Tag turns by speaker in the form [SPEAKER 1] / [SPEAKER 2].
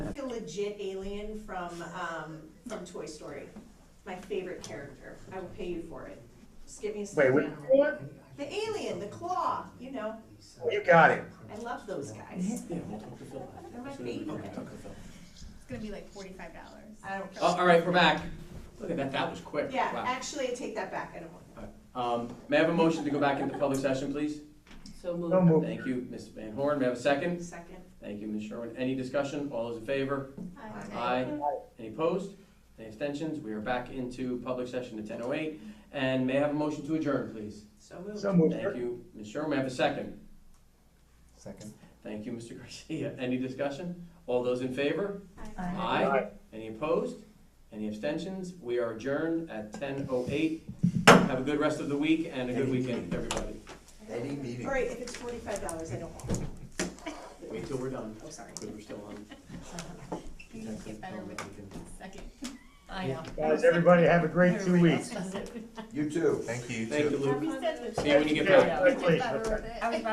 [SPEAKER 1] legit alien from, um, from Toy Story. My favorite character. I will pay you for it. Just give me a
[SPEAKER 2] Wait,
[SPEAKER 1] second.
[SPEAKER 2] what?
[SPEAKER 1] The alien, the claw, you know,
[SPEAKER 2] You got it.
[SPEAKER 1] I love those guys.
[SPEAKER 3] Yeah, we'll talk to Phil.
[SPEAKER 1] They're my
[SPEAKER 3] Absolutely, we'll
[SPEAKER 1] favorite.
[SPEAKER 3] talk to Phil.
[SPEAKER 4] It's gonna be like forty-five dollars.
[SPEAKER 1] I don't.
[SPEAKER 3] Oh, all right, we're back. Look at that, that was quick.
[SPEAKER 1] Yeah,
[SPEAKER 3] Wow.
[SPEAKER 1] actually, I take that back. I don't want.
[SPEAKER 3] Um, may I have a motion to go back into public session, please?
[SPEAKER 5] So moved.
[SPEAKER 2] Don't move.
[SPEAKER 3] Thank you, Ms. Van Horn. May I have a second?
[SPEAKER 1] Second.
[SPEAKER 3] Thank you, Ms. Sherwin. Any discussion? All those in favor?
[SPEAKER 1] Aye.
[SPEAKER 3] Aye. Any opposed? Any abstentions? We are back into public session at ten oh eight. And may I have a motion to adjourn, please?
[SPEAKER 1] So moved.
[SPEAKER 2] So moved.
[SPEAKER 3] Thank you, Ms. Sherwin. May I have a second?
[SPEAKER 6] Second.
[SPEAKER 3] Thank you, Mr. Garcia. Any discussion? All those in favor?
[SPEAKER 2] Aye.
[SPEAKER 3] Any opposed? Any abstentions? We are adjourned at ten oh eight. Have a good rest of the week and a good weekend, everybody.
[SPEAKER 6] Any meeting.
[SPEAKER 1] All right, if it's forty-five dollars, I don't want. it.
[SPEAKER 3] Wait till we're done,
[SPEAKER 1] I'm sorry.
[SPEAKER 3] because we're still on.
[SPEAKER 4] You guys get better with second. I know.
[SPEAKER 2] Guys, everybody have a great two
[SPEAKER 4] Everybody
[SPEAKER 2] weeks.
[SPEAKER 4] else does it.
[SPEAKER 6] You too. Thank you.
[SPEAKER 3] Thank you, Luke.
[SPEAKER 4] We said that-
[SPEAKER 3] See you when you get
[SPEAKER 4] There
[SPEAKER 3] back.
[SPEAKER 4] go. We get
[SPEAKER 2] Quickly.
[SPEAKER 4] better with it.